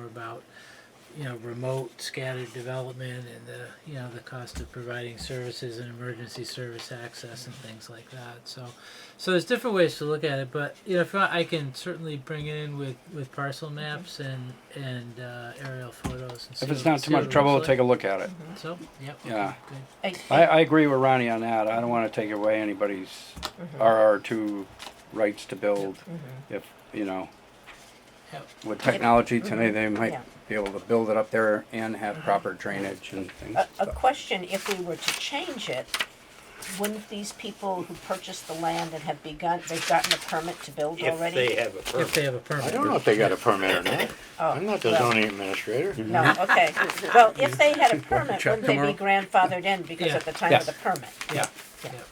about, you know, remote scattered development and the, you know, the cost of providing services and emergency service access and things like that. So, so there's different ways to look at it, but you know, if I, I can certainly bring it in with, with parcel maps and and uh, aerial photos. And see If it's what- not see too what much it trouble, we'll looks take a look at it. like. So, yep. Yeah. Good. I I, think- I agree with Ronnie on that. I don't want to take away anybody's RR2 rights to build. If, you know, Yep. with technology today, they might Yeah. be able to build it up there and have proper drainage and things. A, a question, if we were to change it, wouldn't these people who purchased the land and have begun, they've gotten a permit to build If already? they have a If they permit. have a permit. I don't know if they got a permit or not. Oh, I'm not the well, zoning administrator. No, okay, well, if they had a permit, check wouldn't they tomorrow. be grandfathered in because Yeah. at the time of the Yes. permit? Yeah. Yep.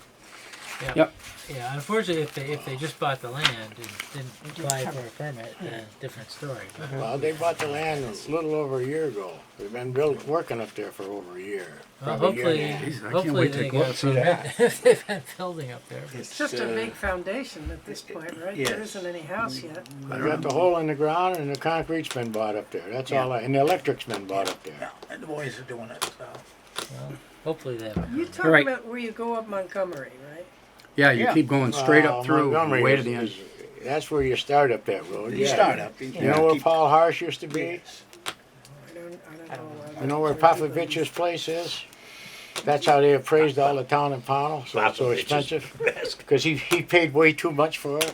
Yep. Yep. Yeah, unfortunately, if they, if they just bought the land and didn't apply for a permit, then different story. But Well, they bought the land a little over a year ago. They've been built, working up there for over a year. well, probably Oh, a year hopefully, and a half. Jesus, I can't hopefully wait to they go got up a to permit if they've been building up there. It's just a uh, big foundation at this point, right? There yes. isn't any house Mm-hmm. yet. They got the hole in the ground and the concrete's been bought up there. That's all, I- and the electric's been bought up there. And the boys are doing it, so. Hopefully they have. a You're talking Right. about where you go up Montgomery, right? Yeah, you Yeah. keep going straight Uh, up through, Montgomery way to is- the end. is- That's where you start up that road. You yeah. start up. You You know where Paul Harsh used to be? I don't, I don't know. You know where Popovich's place is? That's how they appraised all the town in Pownell, so it's so Popovich's. expensive. Because he, he paid way too much for it.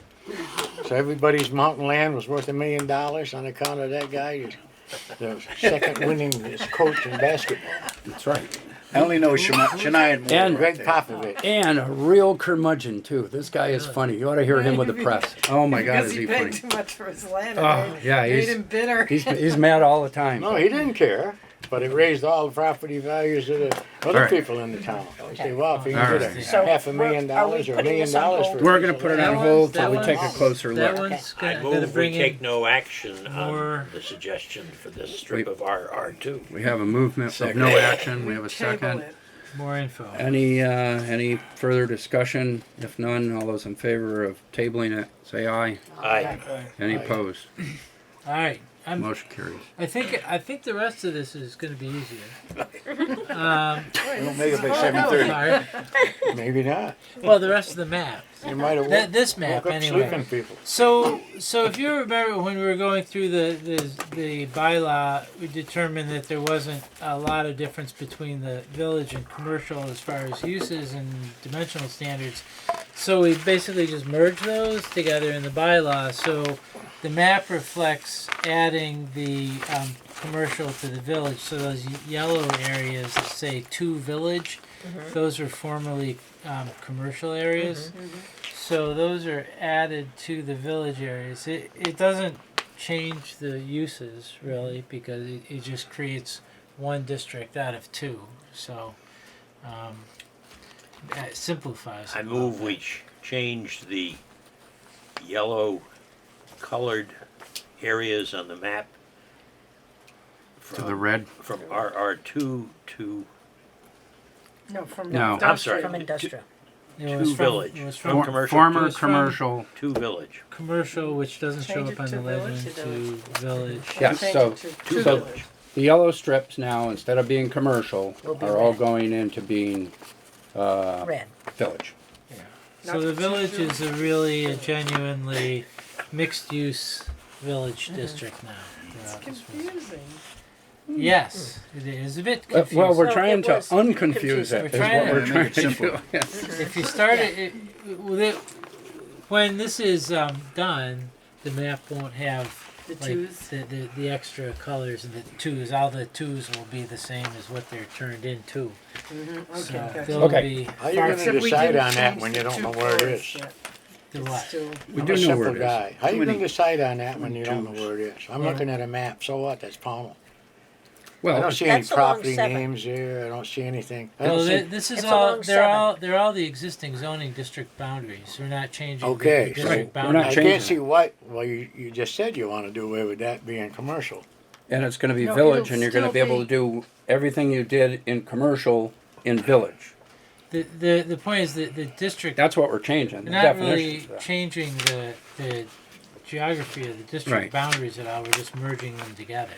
So everybody's mountain land was worth a million dollars on account of that guy, the second winning coach in basketball. That's right. I only know Shania, Shania Moore. And- right Greg there. Popovich. And a real curmudgeon too. This guy is funny. You ought to hear him with the press. Oh my God, Because is he he paid funny? too much for his land. Oh, It yeah, made- he's- Made him bitter. He's he's mad all the time. No, he didn't care, but it raised all the property values of the All other right. people in the town. They say, wow, if you All can get right. a So half a we're- million are we dollars or a putting million this on dollars hold? for. We're gonna put it That on one's- hold till that we take a one's- closer That look. one's I gonna, gonna move we bring take in, no action more- on the suggestion for this strip of RR two. We have a movement of Second. no action. We have a Table second. it. more info. Any, uh, any further discussion? If none, all those in favor of tabling it, say aye. Aye. Any Aye. opposed? All right, I'm, Motion carries. I think, I think the rest of this is gonna be easier. We don't make it by All seven thirty. right. Maybe not. Well, the rest of the map, You might have Th- woke this map woke up anyway. sleeping people. So, so if you remember when we were going through the, the, the bylaw, we determined that there wasn't a lot of difference between the village and commercial as far as uses and dimensional standards. So we basically just merged those together in the bylaw, so the map reflects adding the, um, commercial to the village, so those y- yellow areas that say to village, those are formerly, um, commercial areas. So those are added to the village areas. It, it doesn't change the uses really because it, it just creates one district out of two. So um, it simplifies. I it. move we ch- change the yellow colored areas on the map To the from, red, from RR two to, No, from. No. I'm sorry. From industrial. It to was from- village. It was from From for- commercial former to- commercial. to village. commercial, which doesn't show Change up it on to the legend, village, to village. Yeah, Change so- it to- To to so- village. The yellow strips now, instead of being commercial, Will be are all red. going into being, uh, Red. village. So the village is a really a genuinely mixed use village district now. throughout this world. Mm-hmm. Confusing. Yes, it is a bit Uh, confusing. Well, we're So trying it to was unconfuse confusing. it, is We're trying what to- we're trying Make it to do. simple. If you start it, it, with it when this is um, done, the map won't have The like, The, the, the extra colors and the twos. All the twos will be the same as what they're turned into. So Okay, gotcha. they'll Okay. be How you gonna Except we decide didn't on that change when the you don't two know where it colors is? yet. the It's what? still- We I'm do a know simple where it is. guy. How you gonna Twenty. decide on that when you don't know Twos. where it is? I'm Yeah. looking at a map, so what, that's Pownell. I Well, don't see any That's along property seven. names there, I don't see anything. I Well, don't thi- see, this is It's all. along They're seven. all. They're all the existing zoning district boundaries. We're not changing. the- Okay, The, so district Right, we're not I boundaries. changing can't it. see why, well, you, you just said you wanna do away with that being commercial. and it's gonna be No, village, it'll and you're gonna still be able to be- do everything you did in commercial in village. The, the the point is that the district. That's what we're changing, the We're not really definitions. changing the the geography of the district Right. boundaries at all. We're just merging them together.